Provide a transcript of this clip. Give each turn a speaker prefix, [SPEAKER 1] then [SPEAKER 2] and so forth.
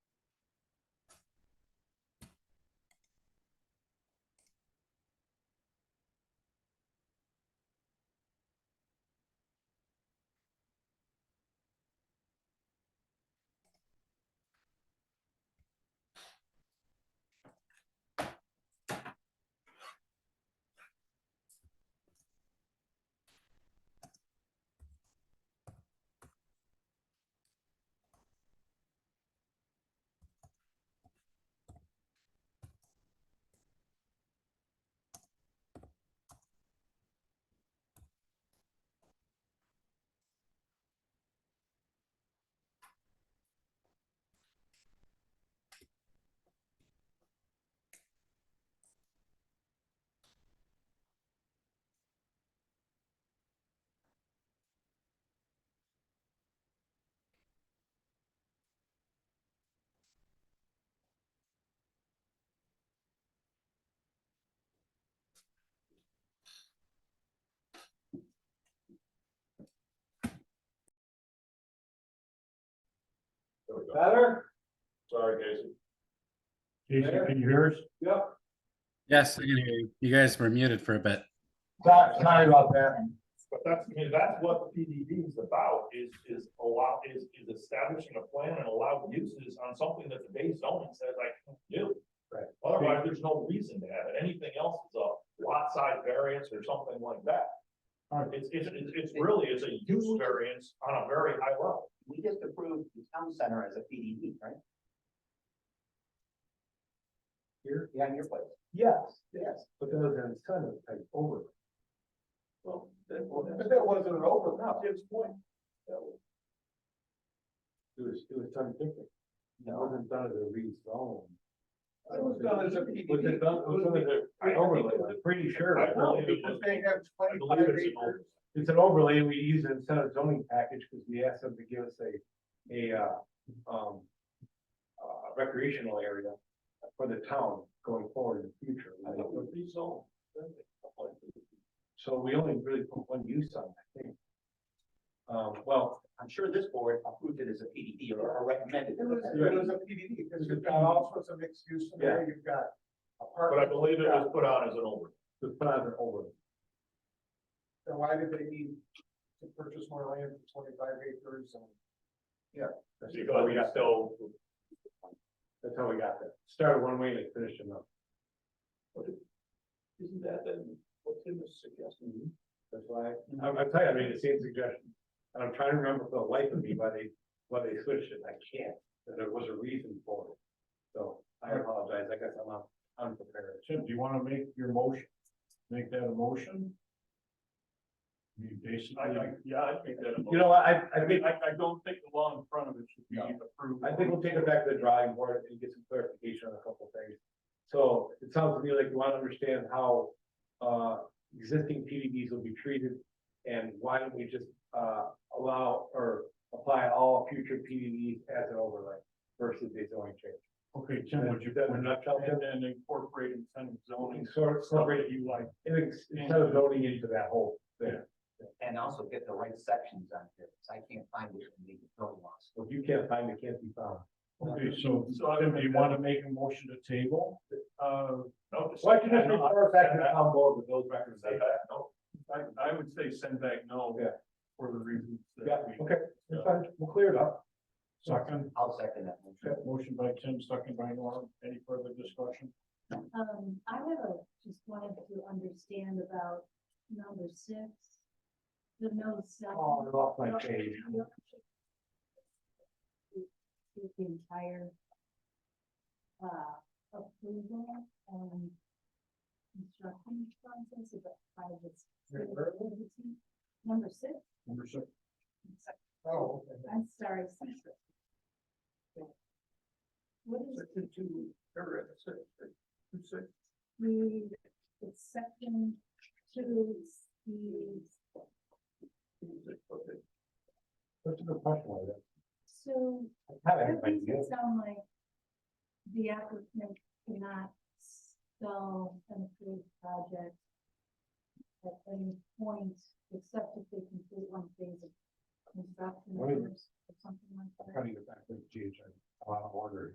[SPEAKER 1] ago.
[SPEAKER 2] Better?
[SPEAKER 1] Sorry, Casey.
[SPEAKER 3] Jason, can you hear us?
[SPEAKER 2] Yep.
[SPEAKER 4] Yes, I can hear you. You guys were muted for a bit.
[SPEAKER 2] Sorry, sorry about that.
[SPEAKER 1] But that's, I mean, that's what the PDD is about, is, is allow, is, is establishing a plan and allow uses on something that the base zoning says I can do.
[SPEAKER 2] Right.
[SPEAKER 1] Otherwise, there's no reason to have it. Anything else is a lot size variance or something like that.
[SPEAKER 2] Alright.
[SPEAKER 1] It's, it's, it's it's really, it's a use variance on a very high level.
[SPEAKER 5] We just approved the town center as a PDD, right? Here, behind your place.
[SPEAKER 2] Yes,
[SPEAKER 5] Yes.
[SPEAKER 2] but then there's kind of like over.
[SPEAKER 1] Well,
[SPEAKER 2] But that wasn't an over, no.
[SPEAKER 1] Jim's point.
[SPEAKER 2] It was, it was done different. It
[SPEAKER 5] No,
[SPEAKER 2] wasn't done as a rezone.
[SPEAKER 5] It was done as a
[SPEAKER 2] Was it done, was
[SPEAKER 1] I
[SPEAKER 2] it done as
[SPEAKER 1] think
[SPEAKER 2] an overlay? I'm pretty sure.
[SPEAKER 1] I believe it was-
[SPEAKER 5] they have
[SPEAKER 1] I believe it's an over.
[SPEAKER 2] It's an overlay, and we use it instead of zoning package, because we asked them to give us a, a, uh, um. Uh, recreational area for the town going forward in the future.
[SPEAKER 1] I thought it was rezoned.
[SPEAKER 2] So we only really put one use on, it, I think. Um, well.
[SPEAKER 5] I'm sure this board approved it as a PDD or- or recommended.
[SPEAKER 6] It was,
[SPEAKER 5] it.
[SPEAKER 6] it was a PDD, because you've got all sorts of mixed use in there, you've got
[SPEAKER 1] But I
[SPEAKER 6] apartment,
[SPEAKER 1] believe it was put on as an over.
[SPEAKER 2] The father over.
[SPEAKER 6] so why did they need to purchase more land for twenty-five acres and?
[SPEAKER 1] Because we got still,
[SPEAKER 2] That's how we got there. Started one way and it finished another.
[SPEAKER 1] isn't that then what Tim was suggesting?
[SPEAKER 2] That's why, I'm, I'm telling you, I made the same suggestion. And I'm trying to remember for the life of me why they, why they switched it. I can't, that there was a reason for it. So I apologize. I guess I'm not unprepared.
[SPEAKER 3] Tim, do you want to make your motion? Make that a motion? You
[SPEAKER 1] I,
[SPEAKER 3] basically,
[SPEAKER 1] I, yeah, I think that.
[SPEAKER 2] You know, what, I,
[SPEAKER 1] I
[SPEAKER 2] I
[SPEAKER 1] mean,
[SPEAKER 2] think,
[SPEAKER 1] I, I don't think the law in front of it should be
[SPEAKER 2] No.
[SPEAKER 1] approved.
[SPEAKER 2] I think we'll take it back to the drawing board and get some clarification on a couple of things. So it sounds to me like you want to understand how, uh, existing PDDs will be treated. And why don't we just, uh, allow or apply all future PDDs as an overlay versus a zoning change?
[SPEAKER 3] okay, Tim, would you,
[SPEAKER 2] That-
[SPEAKER 3] would not
[SPEAKER 2] that-
[SPEAKER 3] and then incorporate incentive zoning,
[SPEAKER 2] zoning, sort of,
[SPEAKER 3] stuff
[SPEAKER 2] sort of,
[SPEAKER 3] that you like?
[SPEAKER 2] instead of zoning into that whole thing,
[SPEAKER 5] And also get the right sections on here, 'cause I can't find it in the building laws.
[SPEAKER 2] if you can't find it, can't be found.
[SPEAKER 3] Okay, so,
[SPEAKER 1] So I
[SPEAKER 3] Tim,
[SPEAKER 1] would
[SPEAKER 3] do you
[SPEAKER 1] make
[SPEAKER 3] want to make a motion to table? Uh,
[SPEAKER 1] No. just-
[SPEAKER 2] Why can't
[SPEAKER 1] I know, I-
[SPEAKER 2] refer back to the town board with those records?
[SPEAKER 1] Send back, no. I, I would say send back no.
[SPEAKER 2] Yeah.
[SPEAKER 1] For the reasons
[SPEAKER 2] Yeah,
[SPEAKER 1] that we.
[SPEAKER 2] okay, it's fine, we'll clear it up.
[SPEAKER 3] second,
[SPEAKER 5] I'll second that. motion.
[SPEAKER 3] okay, motion by Tim, second by Norm, any further discussion?
[SPEAKER 7] Um, I have a, just wanted to understand about number six. The no
[SPEAKER 2] Oh,
[SPEAKER 7] cell.
[SPEAKER 2] I lost my page.
[SPEAKER 7] The entire. Uh, approval and. Construction process of the private. entity. Number six,
[SPEAKER 3] Number six,
[SPEAKER 6] Oh, okay.
[SPEAKER 7] I'm sorry. six. What is
[SPEAKER 6] Section two, paragraph six, two six.
[SPEAKER 7] the, the section two, the
[SPEAKER 2] That's a good question, Lloyd.
[SPEAKER 7] So
[SPEAKER 2] I kind of have
[SPEAKER 7] that
[SPEAKER 2] an
[SPEAKER 7] makes
[SPEAKER 2] idea.
[SPEAKER 7] it sound like the applicant cannot sell an approved project at any point except if they complete one phase of construction
[SPEAKER 2] What is-
[SPEAKER 7] or something like that.
[SPEAKER 2] I'm trying to get back to the GH, I'm out of order.